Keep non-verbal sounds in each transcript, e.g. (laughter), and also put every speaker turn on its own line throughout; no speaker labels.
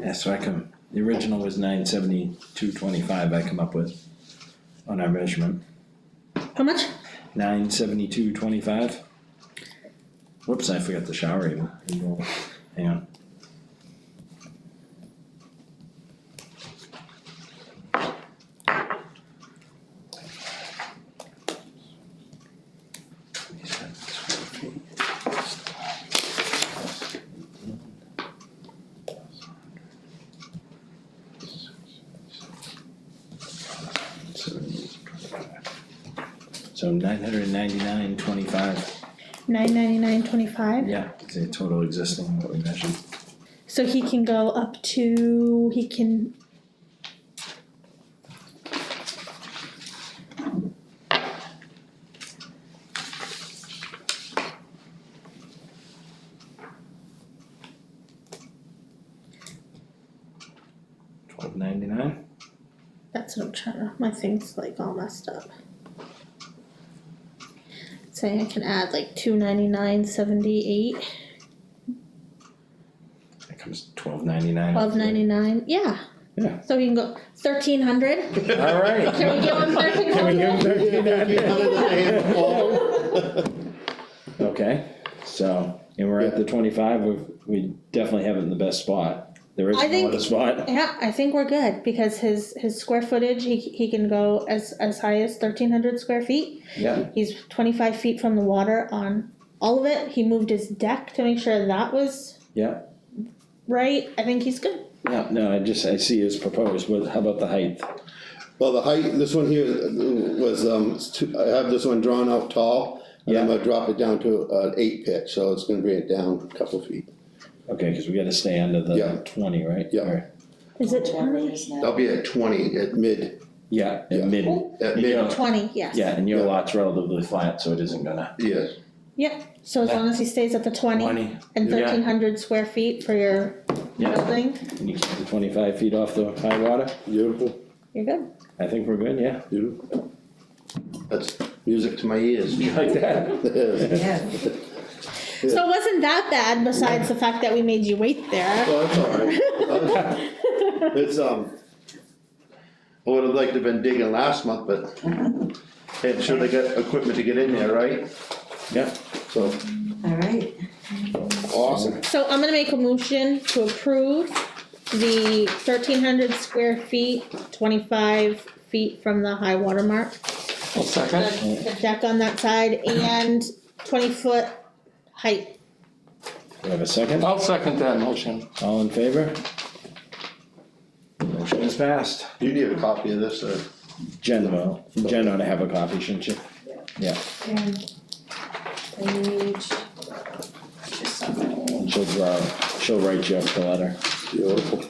Yeah, so I come, the original was nine seventy-two twenty-five I come up with on our measurement,
How much?
nine seventy-two twenty-five. Whoops, I forgot the shower even, hang on. So nine hundred and ninety-nine twenty-five,
Nine ninety nine twenty five.
yeah, is the total existing what we measured.
So he can go up to he can.
Twelve ninety-nine?
That's what I'm trying to. My thing's like all messed up. Saying I can add like two ninety nine seventy eight,
That comes twelve ninety-nine.
twelve ninety nine. Yeah.
Yeah.
So he can go thirteen hundred.
(laughs)
(laughs)
Alright.
Can we give him thirteen
Can we
hundred?
give him
(laughs)
thirteen ninety-nine?
Well,
Okay, so, and we're at the twenty-five, we, we definitely have it in the best spot. There is
I
no
think-
other spot.
Yeah, I think we're good because his his square footage he he can go as as high as thirteen hundred square feet.
Yeah.
He's twenty five feet from the water on all of it. He moved his deck to make sure that was
Yeah.
right. I think he's good.
No, no, I just, I see it's proposed, what, how about the height?
the height, this one here was, um, it's two- I have this one drawn out tall, and I'm gonna drop it down to an eight pitch, so it's gonna bring it down a couple feet.
Okay, cause we gotta stay under
Yeah.
the twenty, right?
Yeah.
Or-
Is it
Whatever it
twenty?
is now.
I'll be at twenty at mid,
Yeah,
Yeah.
at mid,
at
You
mid,
know.
Twenty, yes.
yeah, and your
Yeah.
lot's relatively flat, so it isn't gonna.
yes,
Yeah, so as long as he stays at the twenty and
Yeah.
thirteen hundred square feet for your
Yeah,
building,
and you keep the twenty-five feet off the high water,
beautiful,
you're good.
I think we're good, yeah.
beautiful. That's music to my ears. (laughs)
You like that?
Yes.
Yeah,
So it wasn't that bad besides the fact that we made you wait there.
Well, it's all right. It's, um, I would have liked to have been digging last month, but hey, sure they got equipment to get in there, right?
Yeah,
So,
all right.
awesome.
So I'm gonna make a motion to approve the thirteen hundred square feet, twenty-five feet from the high water mark. The the deck on that side and twenty foot height.
we have a second,
I'll second that motion.
all in favor? Motion is passed.
You need a copy of this, or?
Jen will, Jen ought to have a copy, shouldn't you?
And page. Just something.
And she'll draw, she'll write you up the letter.
Beautiful.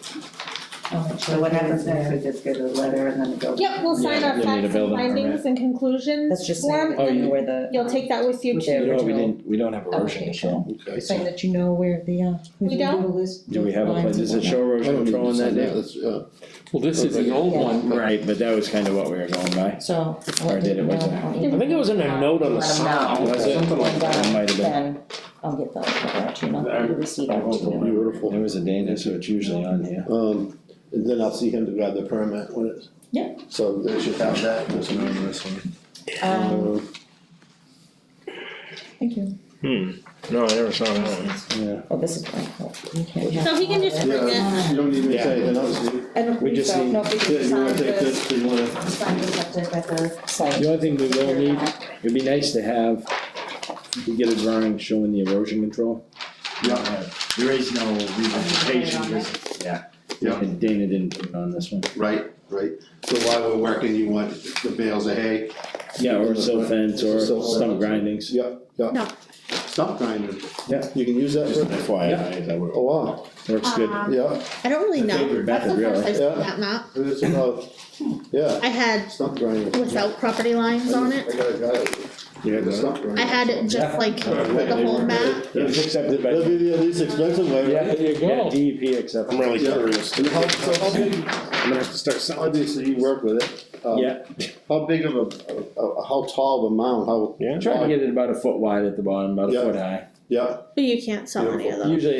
So what happens next, we just get a letter and then it goes.
Yep, we'll sign
Yeah, you'll
our
need a
facts and
building
findings
permit.
and conclusions
That's just
form,
saying that you
Oh,
know
you-
where the.
You'll take that with you
With
too.
You know, what, we
original
didn't, we don't have erosion control.
Okay.
Saying that you know where the, uh.
We don't?
Do we have a, place? does it show
I
erosion
don't need
control
to
in that
sign that,
now?
that's, uh,
Well, this is the old one.
Right, but that was kind of what we were going by.
So. uh,
Or did it with
I
think it was in a note on the side, was it?
Something like that.
It might have been.
Then I'll get the, letter out to you, and I'll give you the receipt out to you.
beautiful.
There was a Dana, so it's usually on here.
Um, and then I'll see him to grab the permit when it's.
Yeah.
So they should have that. this one.
Um,
Um,
thank you.
Hmm, no, I never saw that one.
Yeah,
Oh, this is Frank. You can't have
So he can just bring it.
Yeah, you don't need me to
Yeah.
say anything else, do you?
I don't
We
think
just
so.
need-
No, we
Yeah,
can
you wanna
sign
take
the,
this, do you wanna?
sign the subject at the site.
the only thing we will need, it'd be nice to have, to get a drawing showing the erosion control.
Yeah,
There is no
revegetation, is
Yeah.
Yeah.
And Dana didn't put it on this one.
right, right. So while we're working, you want the bales of hay?
Yeah, or silt fence or
Silt fence.
stump grindings.
Yeah, yeah.
No.
Stump grinder.
Yeah.
You can use that
Just an
for,
FYI, that works-
oh wow,
works good.
Um,
yeah,
I don't really
I think
know.
we're
That's
back
the
to
first I
reality.
saw
Yeah.
that map.
it's about, yeah,
I had
stump grinder.
without property lines on
I
it.
got a guy,
You had
with
that?
a stump grinder.
I had it just like the whole map.
It was accepted by.
That'd be the least expensive way,
Yeah, E
right?
there you go. DEP accepted.
I'm really
Yeah.
curious.
And how, so how big,
I'm gonna have to start selling.
obviously you work with it. um,
Yeah,
How big of a, a, a- how tall of a mound, how?
Yeah.
try to get it about a foot wide at the bottom, about a
Yeah.
foot high.
Yeah,
But you can't sell any of those.
Usually